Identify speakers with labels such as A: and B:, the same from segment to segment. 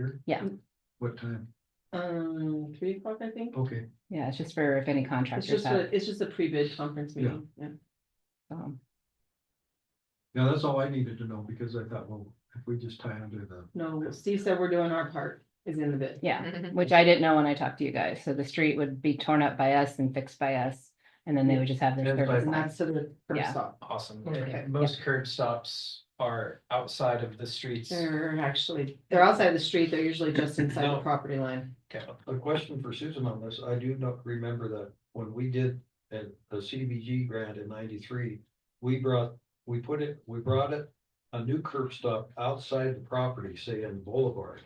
A: Here?
B: Yeah.
A: What time?
C: Um, three o'clock, I think.
D: Oh,
A: Okay,
B: Yeah, it's just for if any
C: It's
B: contractors
C: just
B: have.
C: a, it's just a pre-bid conference
A: Yeah.
C: meeting. Yeah.
B: um,
A: now that's all I needed to know because I thought, well, if we just tie into the,
C: No, Steve said we're doing our part is in the bid.
B: Yeah, which I didn't know when I talked to you guys. So the street would be torn up by us and fixed by us. And then they would just have their
A: And by-
B: service
C: And
B: line.
C: that's to the
B: Yeah.
C: first stop.
E: Awesome.
C: Okay.
E: Most curb stops are outside of the streets.
C: They're actually, they're outside the street. They're usually just inside the
E: No.
C: property line.
E: Okay.
A: a question for Susan on this. I do not remember that when we did a, a CBG grant in ninety-three. We brought, we put it, we brought it, a new curb stop outside the property, say in Boulevard.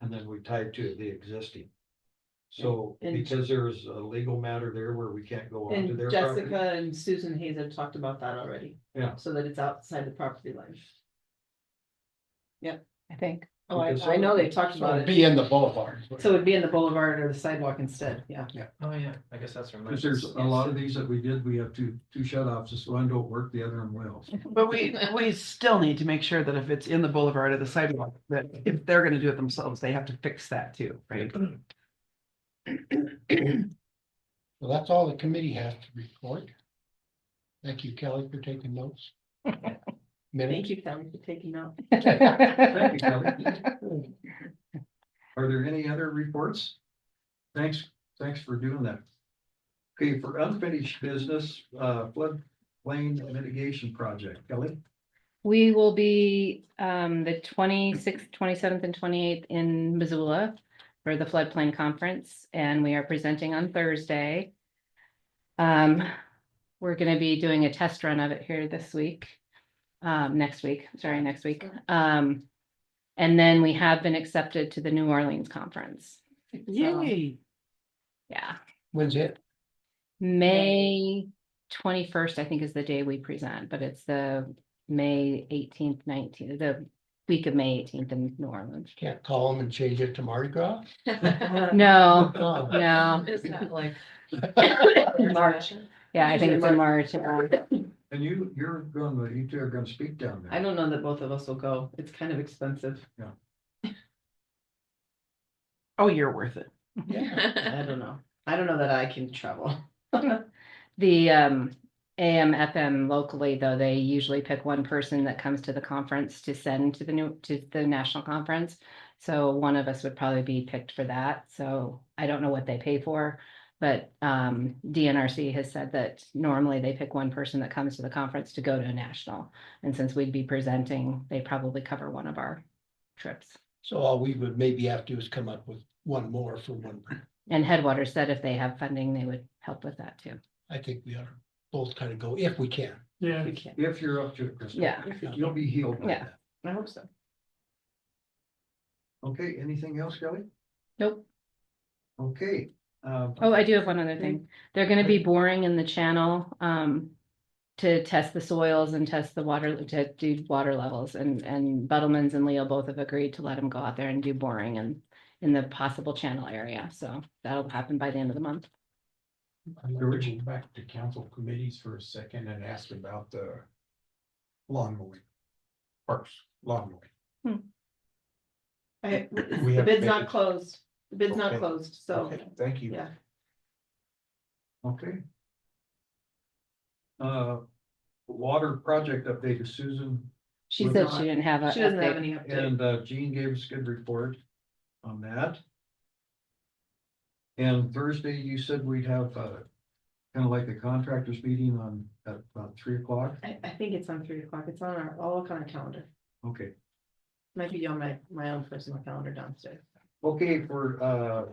A: And then we tied to the existing. So
C: And-
A: because there is a legal matter there where we can't go onto
C: And
A: their property.
C: Jessica and Susan Hayes have talked about that already.
A: Yeah.
C: So that it's outside the property line.
B: I think.
C: Oh, I,
A: Because
C: I know
A: some-
C: they've talked about it.
F: Be in the boulevard.
C: So it'd be in the boulevard or the sidewalk instead. Yeah.
E: Oh, yeah, I guess that's. where mine
A: Cause there's
E: is.
A: a lot of these that we did, we have two, two shut offs, this one don't work, the other one will.
D: But we, we still need to make sure that if it's in the boulevard or the sidewalk, that if they're gonna do it themselves, they have to fix that too, right?
F: Well, that's all the committee has to report. Thank you, Kelly, for taking notes.
C: Thank
F: Minutes.
C: you, Kelly, for taking note.
A: Thank you, Kelly. Are there any other reports? Thanks, thanks for doing that. Okay, for unfinished business, uh, floodplain mitigation project, Kelly?
B: We will be um the twenty-sixth, twenty-seventh and twenty-eighth in Missoula for the floodplain conference and we are presenting on Thursday. Um, we're gonna be doing a test run of it here this week, um, next week, sorry, next week. Um, and then we have been accepted to the New Orleans conference.
D: Yay.
B: Yeah,
F: When's it?
B: May twenty-first, I think is the day we present, but it's the May eighteenth, nineteenth, the week of May eighteenth in New Orleans.
F: Can't call them and change it to Mardi Gras?
B: No,
F: Oh,
B: no,
G: Is that like?
B: March. yeah, I think it's in March.
A: And you, you're going, you two are gonna speak down
C: I
A: there.
C: don't know that both of us will go. It's kind of expensive.
D: Oh, you're worth it.
F: Yeah,
C: I don't know. I don't know that I can travel.
B: The um AM FM locally, though, they usually pick one person that comes to the conference to send to the new, to the national conference. So one of us would probably be picked for that. So I don't know what they pay for. But um DNRC has said that normally they pick one person that comes to the conference to go to a national. And since we'd be presenting, they probably cover one of our trips.
F: so all we would maybe have to do is come up with one more for one.
B: And Headwaters said if they have funding, they would help with that too.
F: I think we ought to both kind of go if we can.
E: Yeah.
C: We can't.
A: If you're up to it, Krista.
B: Yeah.
A: You'll be healed by
B: Yeah.
A: that.
C: I hope so.
A: Okay, anything else, Kelly?
B: Nope.
A: Okay, um,
B: Oh, I do have one other thing. They're gonna be boring in the channel, um. To test the soils and test the water, to do water levels and, and Buttleman's and Leo both have agreed to let them go out there and do boring and. In the possible channel area, so that'll happen by the end of the month.
H: I'm reaching back to council committees for a second and ask about the lawn mowing. Parks, lawn mowing.
C: I,
H: We
C: the
H: have
C: bid's not
H: bids.
C: closed. The bid's not
H: Okay.
C: closed, so,
H: Okay, Thank you.
C: yeah.
A: okay. Uh, water project update is Susan
B: She
A: We're
B: said
C: not-
B: she didn't have a.
C: She doesn't
B: update.
C: have any Uh, update.
A: And uh, Jean gave us a good report on that. And Thursday, you said we'd have uh, kind of like a contractors meeting on, at about three o'clock?
C: I, I think it's on three o'clock. It's on our, all kind of calendar.
A: Okay,
C: Might be on my, my own personal calendar downstairs.
A: okay, for uh,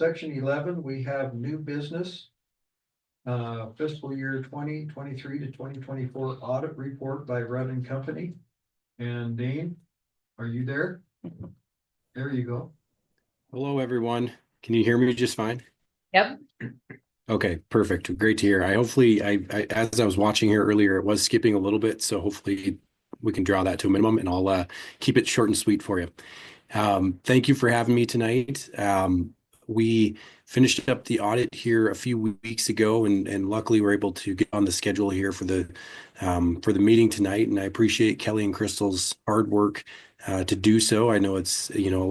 A: section eleven, we have new business. Uh, fiscal year twenty twenty-three to twenty twenty-four audit report by Rudd and Company. And Dane, are you there? There you go.
I: Hello, everyone. Can you hear me just fine?
B: Yep.
I: Okay, perfect. Great to hear. I hopefully, I, I, as I was watching here earlier, it was skipping a little bit, so hopefully we can draw that to a minimum and I'll, uh, keep it short and sweet for you. Um, thank you for having me tonight. Um, we finished up the audit here a few weeks ago and, and luckily we're able to get on the schedule here for the, um, for the meeting tonight. And I appreciate Kelly and Crystal's hard work uh, to do so. I know it's, you know, a